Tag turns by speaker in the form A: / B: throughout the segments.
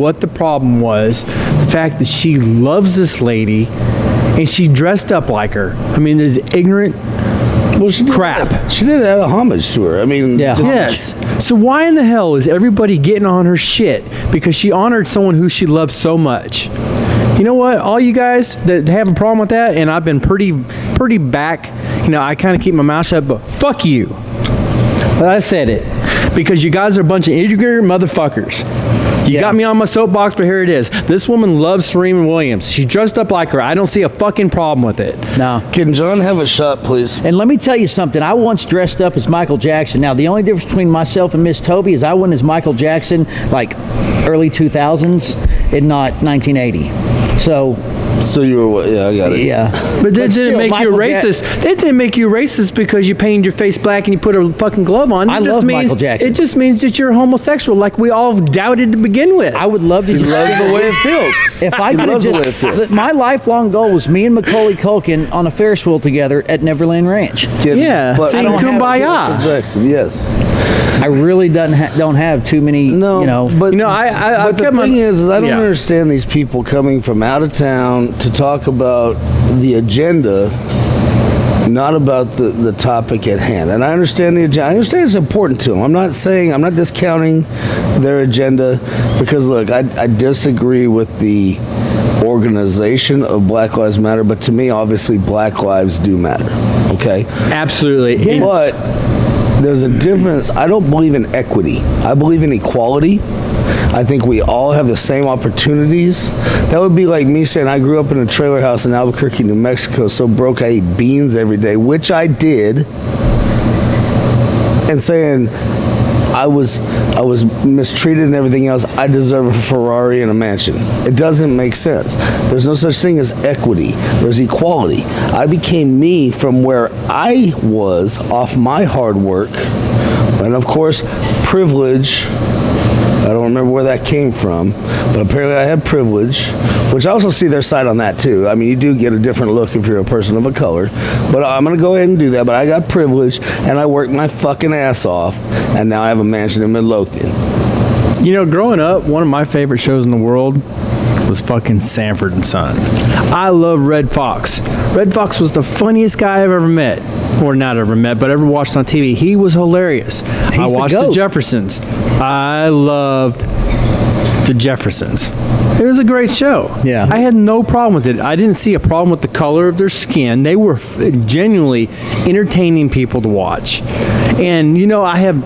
A: what the problem was. The fact that she loves this lady and she dressed up like her. I mean, this ignorant
B: Well, she did
A: Crap.
B: that- She did add a homage to her. I mean,
C: Yeah.
B: to-
A: Yes. So why in the hell is everybody getting on her shit because she honored someone who she loves so much? You know what? All you guys that have a problem with that, and I've been pretty, pretty back. You know, I kind of keep my mouth shut, but fuck you. But I said it because you guys are a bunch of ignorant motherfuckers. You
C: Yeah.
A: got me on my soapbox, but here it is. This woman loves Serena Williams. She dressed up like her. I don't see a fucking problem with it.
C: No.
B: Can John have a shot, please?
C: And let me tell you something. I once dressed up as Michael Jackson. Now, the only difference between myself and Miss Toby is I went as Michael Jackson, like early 2000s, and not 1980. So,
B: So you were, what- yeah, I got it.
C: yeah.
A: But that
C: still,
A: didn't make
C: Michael
A: you a
C: Jack-
A: racist. that didn't make you a racist because you painted your face black and you put a fucking glove on. It
C: I
A: just
C: love
A: means,
C: Michael Jackson.
A: It just means that you're homosexual, like we all doubted to begin with.
C: I would love to just
B: Loves the way it feels.
C: If I
B: He
C: could have
B: loves the way it
C: just,
B: feels.
C: Look, my lifelong goal was me and Macaulay Culkin on a Ferris wheel together at Neverland Ranch.
B: Can-
A: Yeah,
B: but-
A: sing
C: I don't have it.
B: Michael
A: kumbaya.
B: Jackson, yes.
C: I really don't ha- don't have too many, you know.
B: but
A: You know, I- I- I've
B: but the
A: kept my-
B: thing is, is I don't
A: Yeah.
B: understand these people coming from out of town to talk about the agenda, not about the, the topic at hand. And I understand the agenda. I understand it's important to them. I'm not saying I'm not discounting their agenda because look, I, I disagree with the organization of Black Lives Matter, but to me, obviously, Black lives do matter. Okay.
A: Absolutely. It-
B: But there's a difference. I don't believe in equity. I believe in equality. I think we all have the same opportunities. That would be like me saying I grew up in a trailer house in Albuquerque, New Mexico, so broke I ate beans every day, which I did. And saying I was I was mistreated and everything else. I deserve a Ferrari and a mansion. It doesn't make sense. There's no such thing as equity. There's equality. I became me from where I was off my hard work, and of course, privilege. I don't remember where that came from, but apparently I had privilege, which I also see their side on that too. I mean, you do get a different look if you're a person of a color, but I'm gonna go ahead and do that. But I got privilege and I worked my fucking ass off, and now I have a mansion in Midlothian.
A: You know, growing up, one of my favorite shows in the world was fucking Sanford and Son. I love Red Fox. Red Fox was the funniest guy I've ever met, or not ever met, but ever watched on TV. He was hilarious. I
C: the
A: watched the,
C: goat.
A: Jeffersons. I loved the Jeffersons. It was a great show.
C: Yeah.
A: I had no problem with it. I didn't see a problem with the color of their skin. They were f- genuinely entertaining people to watch. And you know, I have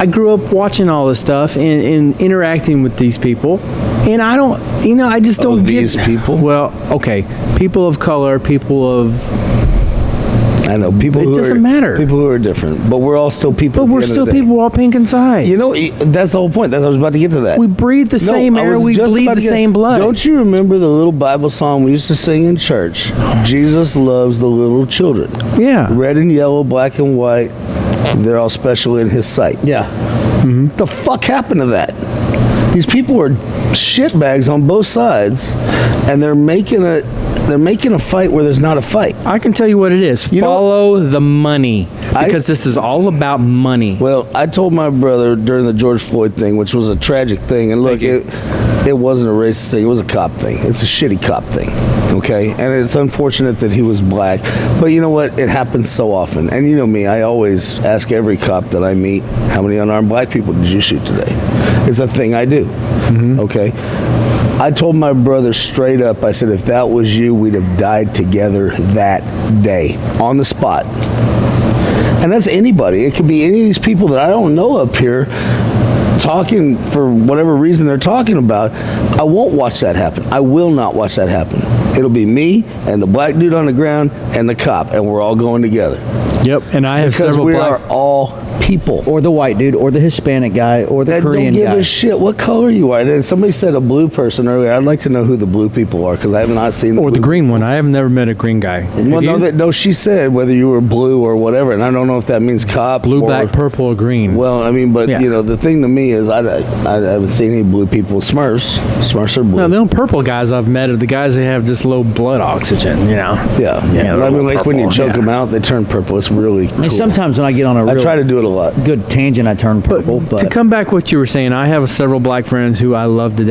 A: I grew up watching all this stuff and, and interacting with these people, and I don't, you know, I just
B: Oh,
A: don't
B: these
A: get
B: people?
A: Well, okay, people of color, people of,
B: I know people.
A: It
B: who
A: doesn't
B: are,
A: matter.
B: People who are different, but we're all still
A: but
B: people. at the
A: we're
B: end of the
A: still
B: day.
A: people all pink inside.
B: You know, e- that's the whole point. That's I was about to get to that.
A: we breathe the
B: No,
A: same
B: I
A: air,
B: was
A: we
B: just
A: bleed
B: about
A: the
B: to get-
A: same blood.
B: Don't you remember the little Bible song we used to sing in church? Jesus loves the little children.
A: Yeah.
B: Red and yellow, black and white. They're all special in his sight.
C: yeah.
B: What the fuck happened to that? These people are shitbags on both sides and they're making a they're making a fight where there's not a fight.
A: I can tell you what it is.
B: know-
A: Follow the money
B: I-
A: because this is all about money.
B: Well, I told my brother during the George Floyd thing, which was a tragic thing, and look, it it wasn't a racist thing; it was a cop thing. It's a shitty cop thing, okay? And it's unfortunate that he was black, but you know what? It happens so often. And you know me; I always ask every cop that I meet, "How many unarmed black people did you shoot today?" It's a thing I do, okay? I told my brother straight up. I said, "If that was you, we'd have died together that day on the spot." and that's anybody. It could be any of these people that I don't know up here talking for whatever reason they're talking about. I won't watch that happen. I will not watch that happen. It'll be me and the black dude on the ground and the cop, and we're all going together
A: Yep, and I have
B: because
A: several
B: we
A: black.
B: are all people.
C: Or the white dude, or the Hispanic guy, or the
B: That
C: Korean
B: don't give
C: guy.
B: a shit what color you are. And somebody said a blue person earlier. I'd like to know who the blue people are because I have not seen.
A: or the
B: blue-
A: green one. I have never met a green guy.
B: Well,
A: Have
B: no,
A: you?
B: that, no, she said whether you were blue or whatever, and I don't know if that means cop,
A: Blue,
B: or,
A: black, purple, or green.
B: Well, I mean, but
A: Yeah.
B: you know, the thing to me is, I, I, I haven't seen any blue people. Smurfs, Smurfs are blue.
A: No, the only purple guys I've met are the guys that have just low blood oxygen, you know?
B: yeah,
A: Yeah,
B: And
A: they're
B: I mean,
A: all
B: like when you
A: purple,
B: choke
A: yeah.
B: them out, they turn purple. It's really.
C: I mean,
B: cool.
C: Sometimes when I get on a
B: I
C: real
B: try to do it a a lot.
C: Good tangent. I turned purple, but
A: to come back what you were saying, I have several black friends who I love to